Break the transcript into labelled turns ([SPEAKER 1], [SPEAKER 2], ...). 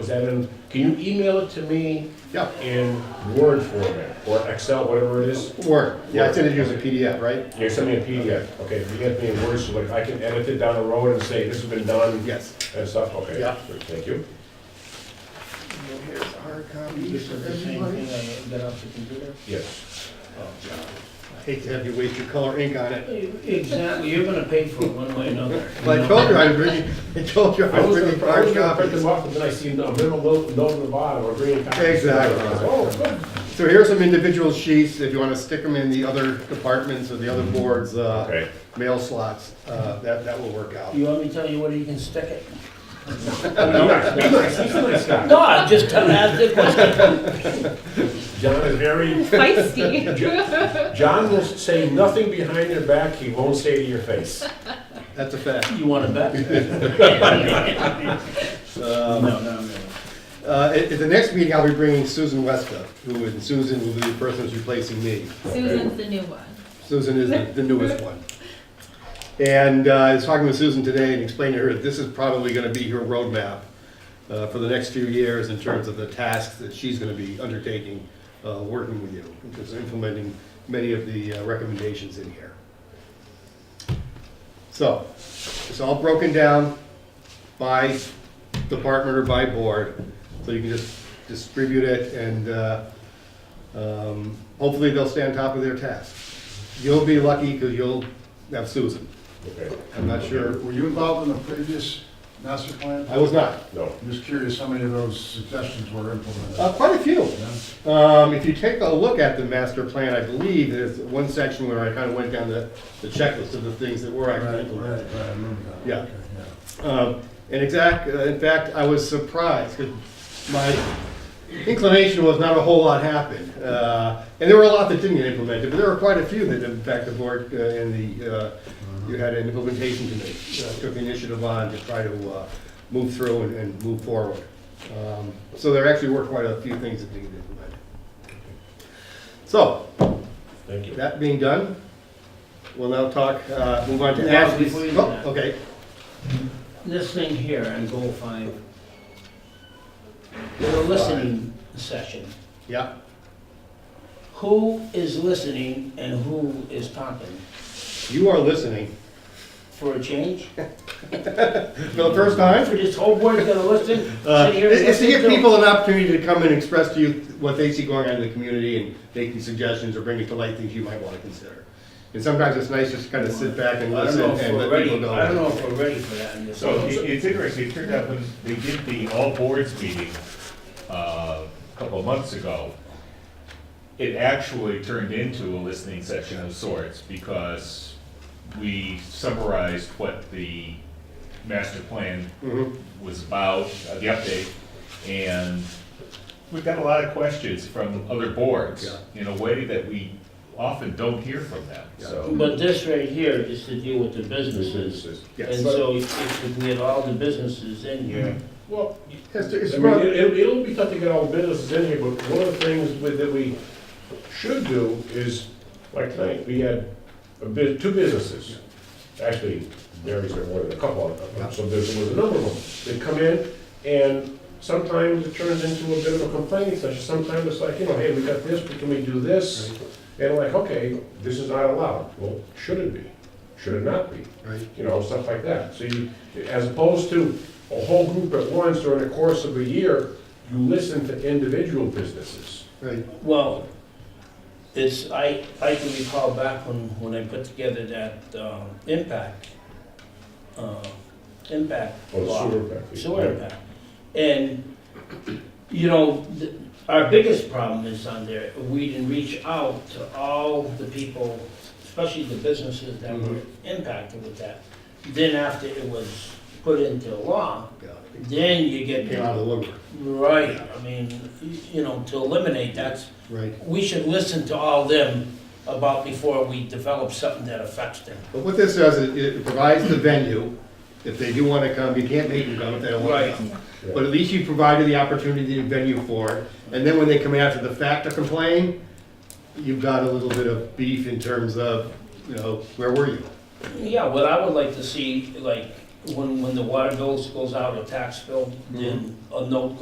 [SPEAKER 1] Is that in, can you email it to me
[SPEAKER 2] Yeah,
[SPEAKER 1] in Word format or Excel, whatever it is?
[SPEAKER 2] Word. Yeah, I sent it to you as a PDF, right?
[SPEAKER 1] You send me a PDF, okay, if you get me in Word, so like I can edit it down the road and say, this has been done.
[SPEAKER 2] Yes.
[SPEAKER 1] And stuff, okay.
[SPEAKER 2] Yeah.
[SPEAKER 1] Thank you.
[SPEAKER 2] Here's a hard copy
[SPEAKER 3] This is the same thing I got off the computer?
[SPEAKER 1] Yes.
[SPEAKER 2] I hate to have you waste your color ink on it.
[SPEAKER 3] Exactly, you're gonna pay for it one way or another.
[SPEAKER 2] But I told you I was bringing, I told you I
[SPEAKER 1] I
[SPEAKER 2] was
[SPEAKER 1] was gonna,
[SPEAKER 2] bringing
[SPEAKER 1] I was
[SPEAKER 2] hard
[SPEAKER 1] gonna print
[SPEAKER 2] copies.
[SPEAKER 1] them off, and then I see a little note, note on the bottom, or green copy.
[SPEAKER 2] Exactly.
[SPEAKER 1] Oh, good.
[SPEAKER 2] So here's some individual sheets, if you want to stick them in the other departments or the other boards, uh,
[SPEAKER 1] Okay.
[SPEAKER 2] mail slots, uh, that, that will work out.
[SPEAKER 3] You want me to tell you where you can stick it?
[SPEAKER 1] Nice, nice, he's a nice guy.
[SPEAKER 3] No, I'm just telling, I did question.
[SPEAKER 1] John is very,
[SPEAKER 4] Feisty.
[SPEAKER 1] John will say nothing behind your back, he won't say to your face.
[SPEAKER 2] That's a fact.
[SPEAKER 3] You want it back? No,
[SPEAKER 2] Um,
[SPEAKER 3] no, no.
[SPEAKER 2] uh, At at the next meeting, I'll be bringing Susan West up, who, and Susan will be the person who's replacing me.
[SPEAKER 4] Susan's the new one.
[SPEAKER 2] Susan is the- the newest one. And uh, I was talking with Susan today and explained to her that this is probably gonna be her roadmap uh, for the next few years in terms of the tasks that she's gonna be undertaking, uh, working with you, because implementing many of the uh, recommendations in here. So, it's all broken down by department or by board, so you can just distribute it and uh, um, hopefully they'll stay on top of their tasks. You'll be lucky because you'll have Susan.
[SPEAKER 1] Okay,
[SPEAKER 2] I'm not sure.
[SPEAKER 5] Were you involved in the previous master plan?
[SPEAKER 2] I was not.
[SPEAKER 1] no.
[SPEAKER 5] I'm just curious how many of those suggestions were implemented.
[SPEAKER 2] Uh, quite a few.
[SPEAKER 5] Yeah?
[SPEAKER 2] Um, if you take a look at the master plan, I believe there's one section where I kind of went down the, the checklist of the things that were
[SPEAKER 5] Right, right,
[SPEAKER 2] actually
[SPEAKER 5] right,
[SPEAKER 2] implemented.
[SPEAKER 5] I remember that.
[SPEAKER 2] Yeah.
[SPEAKER 5] Okay,
[SPEAKER 2] Um, and exact, uh, in fact, I was surprised 'cause my inclination was not a whole lot happened. Uh, and there were a lot that didn't get implemented, but there were quite a few that, in fact, the board uh, and the, uh, you had an implementation committee uh, took initiative on to try to uh, move through and, and move forward. Um, so there actually were quite a few things that didn't get implemented. So,
[SPEAKER 1] Thank you.
[SPEAKER 2] that being done, we'll now talk, uh, move on to
[SPEAKER 3] Now,
[SPEAKER 2] Ashley's.
[SPEAKER 3] before you do
[SPEAKER 2] Oh,
[SPEAKER 3] that.
[SPEAKER 2] Okay,
[SPEAKER 3] This thing here on goal five. The listening session.
[SPEAKER 2] yeah,
[SPEAKER 3] Who is listening and who is talking?
[SPEAKER 2] you are listening.
[SPEAKER 3] For a change?
[SPEAKER 2] For the first time?
[SPEAKER 3] For this whole board's gonna listen,
[SPEAKER 2] Uh,
[SPEAKER 3] sit here and
[SPEAKER 2] It's to
[SPEAKER 3] listen
[SPEAKER 2] give
[SPEAKER 3] to-
[SPEAKER 2] people an opportunity to come and express to you what they see going on in the community and make these suggestions or bring to light things you might want to consider. And sometimes it's nice just to kind of sit back and
[SPEAKER 3] I don't
[SPEAKER 2] listen
[SPEAKER 3] know if
[SPEAKER 2] and
[SPEAKER 3] we're
[SPEAKER 2] let people
[SPEAKER 3] ready,
[SPEAKER 2] go.
[SPEAKER 3] I don't know if we're ready for that in this.
[SPEAKER 6] So it- it's interesting, it turned out when they did the all boards meeting, uh, a couple of months ago, it actually turned into a listening session of sorts, because we summarized what the master plan
[SPEAKER 2] Mhm.
[SPEAKER 6] was about, uh, the update, and we've got a lot of questions from other boards, in a way that we often don't hear from them, so.
[SPEAKER 3] But this right here is to deal with the businesses.
[SPEAKER 2] Yes.
[SPEAKER 3] And so if if we had all the businesses in here,
[SPEAKER 1] Well,
[SPEAKER 2] It's-
[SPEAKER 1] I
[SPEAKER 2] it's
[SPEAKER 1] mean,
[SPEAKER 2] rough.
[SPEAKER 1] it- it'll, it'll be tough to get all the businesses in here, but one of the things with- that we should do is, like tonight, we had a bit, two businesses. Actually, Mary's there more than a couple of them, so there was a number of them. They come in and sometimes it turns into a bit of a complaining session. Sometimes it's like, you know, hey, we got this, but can we do this? And like, okay, this is not allowed. Well, should it be? Should it not be?
[SPEAKER 2] Right.
[SPEAKER 1] you know, stuff like that. So you, as opposed to a whole group at once during the course of a year, you listen to individual businesses.
[SPEAKER 2] Right,
[SPEAKER 3] well, it's, I, I can recall back when, when I put together that, um, impact, uh, impact
[SPEAKER 1] Or Oh, the
[SPEAKER 3] law.
[SPEAKER 1] sewer impact fee.
[SPEAKER 3] sewer impact. And, you know, th- our biggest problem is on there, we didn't reach out to all the people, especially the businesses that were impacted with that. Then after it was put into law,
[SPEAKER 2] yeah.
[SPEAKER 3] then you get,
[SPEAKER 2] Came out of the woodwork,
[SPEAKER 3] right, I mean, y- you know, to eliminate that,
[SPEAKER 2] right.
[SPEAKER 3] we should listen to all them about before we develop something that affects them.
[SPEAKER 2] But what this does, it- it provides the venue, if they do want to come, you can't make them come if they don't want to
[SPEAKER 3] Right.
[SPEAKER 2] come.
[SPEAKER 1] Yeah.
[SPEAKER 2] But at least you provided the opportunity and venue for it, and then when they come after the fact to complain, you've got a little bit of beef in terms of, you know, where were you?
[SPEAKER 3] Yeah, what I would like to see, like, when, when the water bills goes out, a tax bill, then a note